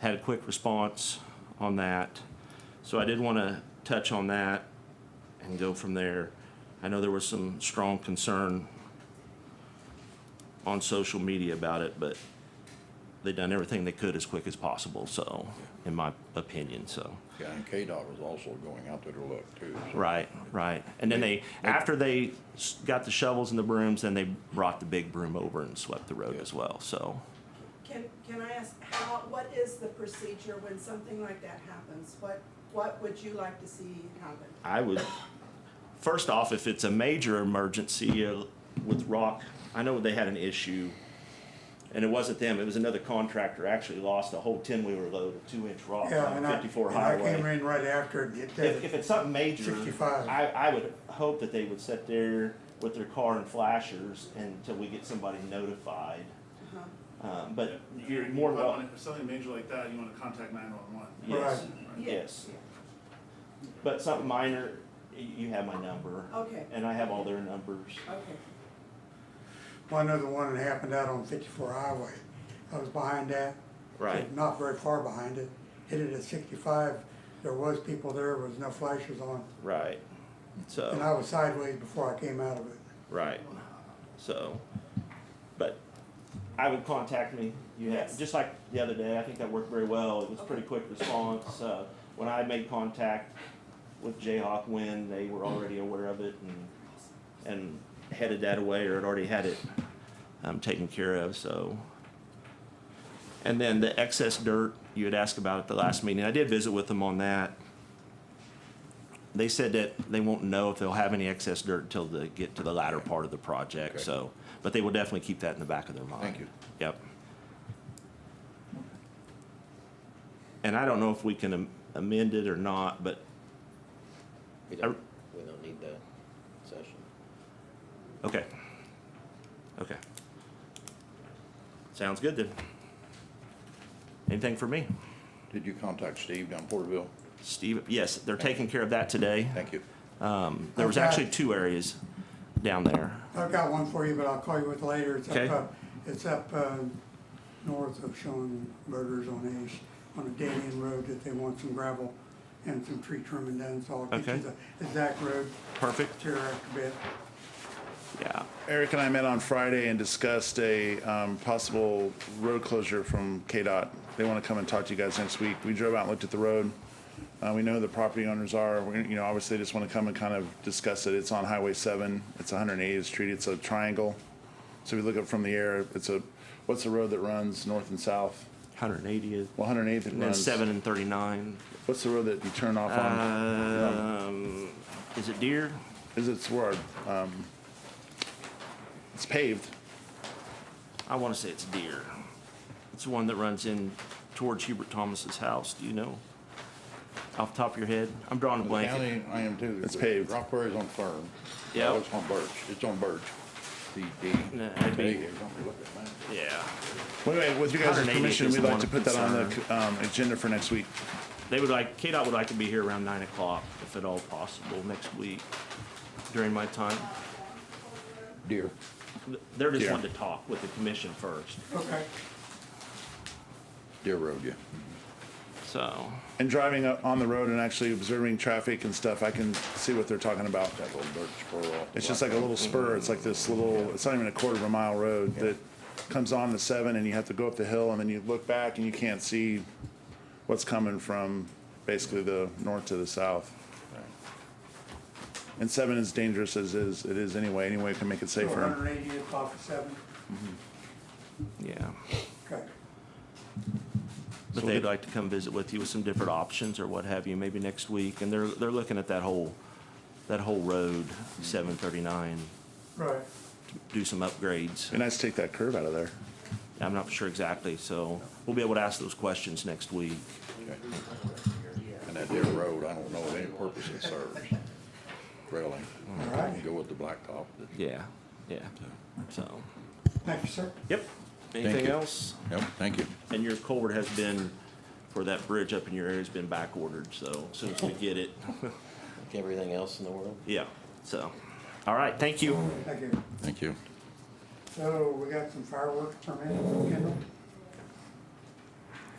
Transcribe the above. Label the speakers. Speaker 1: had a quick response on that. So I did want to touch on that and go from there. I know there was some strong concern on social media about it, but they done everything they could as quick as possible, so, in my opinion, so.
Speaker 2: Yeah, and KDOT was also going out there to look too. so-
Speaker 1: Right, right. And then they, after they s- got the shovels and the brooms, then they brought the big broom over and swept the road as well, so.
Speaker 3: Can, can I ask, how, what is the procedure when something like that happens? What, what would you like to see happen?
Speaker 1: I would, first off, if it's a major emergency uh, with rock, I know they had an issue, and it wasn't them, it was another contractor actually lost a whole ten-wheeler load of two-inch rock
Speaker 4: Yeah,
Speaker 1: on
Speaker 4: and I,
Speaker 1: fifty-four
Speaker 4: and I came
Speaker 1: highway.
Speaker 4: in right after it hit
Speaker 1: If, if
Speaker 4: that.
Speaker 1: it's something major,
Speaker 4: 65.
Speaker 1: I, I would hope that they would sit there with their car and flashers until we get somebody notified. Um, but you're more than
Speaker 5: If I
Speaker 1: welcome.
Speaker 5: want- If something major like that, you wanna contact nine-one-one.
Speaker 1: Yes,
Speaker 4: Right.
Speaker 1: yes. But something minor, y- you have my number.
Speaker 3: Okay.
Speaker 1: And I have all their numbers.
Speaker 3: Okay,
Speaker 4: One other one that happened out on fifty-four highway. I was behind that.
Speaker 1: Right.
Speaker 4: Not very far behind it. Hit it at sixty-five. There was people there, was no flashers on.
Speaker 1: Right.
Speaker 4: And I
Speaker 1: So,
Speaker 4: was sideways before I came out of it.
Speaker 1: right. So, but I would contact me. You have,
Speaker 3: Yes.
Speaker 1: just like the other day, I think that worked very well. It was pretty quick response. Uh, when I made contact with Jayhawk Wind, they were already aware of it and, and headed that away or had already had it, um, taken care of, so. And then the excess dirt you had asked about at the last meeting, I did visit with them on that. They said that they won't know if they'll have any excess dirt until they get to the latter part of the project,
Speaker 2: Okay.
Speaker 1: so, but they will definitely keep that in the back of their mind.
Speaker 2: Thank you.
Speaker 1: Yep. And I don't know if we can am- amend it or not, but
Speaker 6: We don't, we don't need that session.
Speaker 1: Okay. Okay. Sounds good then. Anything for me?
Speaker 2: Did you contact Steve down in Porterville?
Speaker 1: Steve, yes, they're taking care of that today.
Speaker 2: Thank you.
Speaker 1: There was
Speaker 4: Okay.
Speaker 1: actually two areas down there.
Speaker 4: I've got one for you, but I'll call you with later. It's
Speaker 1: Okay.
Speaker 4: up, uh, it's up, uh, north of Schoenberger's on Ash, on a dead end road that they want some gravel and some tree trimming done, so I'll get
Speaker 1: Okay.
Speaker 4: you the exact road
Speaker 1: Perfect.
Speaker 4: here after bit.
Speaker 1: Yeah.
Speaker 5: Eric and I met on Friday and discussed a um, possible road closure from KDOT. They want to come and talk to you guys next week. We drove out and looked at the road. Uh, We know who the property owners are. We- You know, obviously, they just want to come and kind of discuss it. It's on Highway 7. It's 180th Street. It's a triangle. So if you look up from the air, it's a, what's the road that runs north and south?
Speaker 1: Hundred and eightieth.
Speaker 5: Well, 108th it
Speaker 1: And then
Speaker 5: runs.
Speaker 1: seven Uh, and thirty-nine.
Speaker 5: What's the road that you turn off on?
Speaker 1: Um, is it deer?
Speaker 5: Is it's where, um, it's paved.
Speaker 1: I want to say it's deer. It's the one that runs in towards Hubert Thomas's house. Do you know? Off the top of your head? I'm drawing a
Speaker 2: The
Speaker 1: blank.
Speaker 2: County, I am too.
Speaker 5: It's paved.
Speaker 2: Rock Quarry's on Fern.
Speaker 1: Yep.
Speaker 2: Oh, It's on Birch. It's on Birch. D, D.
Speaker 1: No, that'd be-
Speaker 2: Hey, don't we look at that?
Speaker 1: Yeah.
Speaker 5: Wait, wait, with your guys'
Speaker 1: 180
Speaker 5: permission,
Speaker 1: is
Speaker 5: we'd
Speaker 1: the
Speaker 5: like
Speaker 1: one
Speaker 5: to put that on
Speaker 1: concern.
Speaker 5: the, um, agenda for next week.
Speaker 1: They would like, KDOT would like to be here around nine o'clock, if at all possible, next week during my time.
Speaker 2: Deer.
Speaker 1: They're just
Speaker 5: Yeah.
Speaker 1: wanting to talk with the commission first,
Speaker 4: Okay.
Speaker 2: Deer Road, yeah.
Speaker 1: so,
Speaker 5: And driving up on the road and actually observing traffic and stuff, I can see what they're talking about.
Speaker 2: That little dirt spur off.
Speaker 5: It's just like a little spur, it's like this little, it's not even a quarter of a mile road that comes on the seven and you have to go up the hill and then you look back and you can't see what's coming from basically the north to the south. And seven is dangerous as is, it is anyway, any way it can make it
Speaker 4: One
Speaker 5: safer.
Speaker 4: hundred eightieth off of seven,
Speaker 1: yeah.
Speaker 4: okay.
Speaker 1: But
Speaker 5: So
Speaker 1: they'd
Speaker 5: the-
Speaker 1: like to come visit with you with some different options or what have you, maybe next week, and they're, they're looking at that whole, that whole road, seven thirty-nine,
Speaker 4: Right,
Speaker 1: do some upgrades.
Speaker 5: Be nice to take that curve out of there.
Speaker 1: I'm not sure exactly, so we'll be able to ask those questions next week.
Speaker 2: And that Deer Road, I don't know of any purpose it serves. Really.
Speaker 4: All
Speaker 2: I can
Speaker 4: right.
Speaker 2: Go with the blacktop.
Speaker 1: Yeah, yeah, so,
Speaker 4: thank you, sir.
Speaker 1: yep. Anything
Speaker 2: you.
Speaker 1: else?
Speaker 2: Yep, thank you.
Speaker 1: And your culvert has been, for that bridge up in your area, has been back ordered, so as soon as we get it,
Speaker 6: Like everything else in the world.
Speaker 1: yeah, so. All right, thank you.
Speaker 4: Thank you.
Speaker 2: Thank you.
Speaker 4: So, we got some fireworks permit, Kendall?